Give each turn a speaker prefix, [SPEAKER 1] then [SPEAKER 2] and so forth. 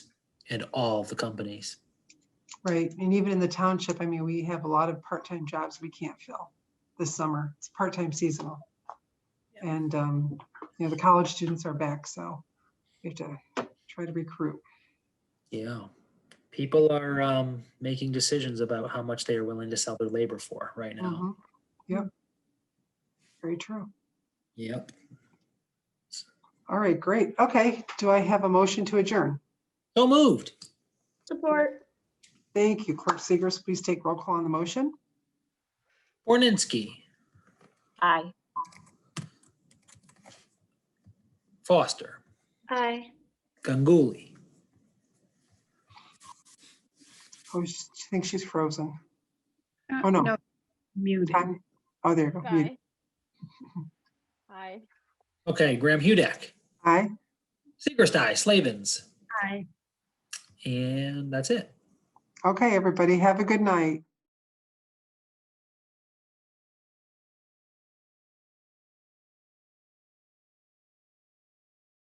[SPEAKER 1] and all the companies.
[SPEAKER 2] Right, and even in the township, I mean, we have a lot of part-time jobs we can't fill this summer. It's part-time seasonal. And, um, you know, the college students are back, so we have to try to recruit.
[SPEAKER 1] Yeah. People are um, making decisions about how much they are willing to sell their labor for right now.
[SPEAKER 2] Mhm. Yep. Very true.
[SPEAKER 1] Yep.
[SPEAKER 2] All right, great. Okay, do I have a motion to adjourn?
[SPEAKER 1] So moved.
[SPEAKER 3] Support.
[SPEAKER 2] Thank you. Clerk Segers, please take roll call on the motion.
[SPEAKER 1] Borninski,
[SPEAKER 3] Aye.
[SPEAKER 1] Foster,
[SPEAKER 3] Aye.
[SPEAKER 1] Ganguly,
[SPEAKER 2] Oh, she she thinks she's frozen.
[SPEAKER 4] Uh,
[SPEAKER 2] Oh, no.
[SPEAKER 4] Muted.
[SPEAKER 2] Time- Oh, there you go. You-
[SPEAKER 3] Aye. Aye.
[SPEAKER 1] okay, Graham Hudek,
[SPEAKER 2] Aye.
[SPEAKER 1] Siegerstai, Slavens,
[SPEAKER 4] Aye.
[SPEAKER 1] and that's it.
[SPEAKER 2] Okay, everybody, have a good night.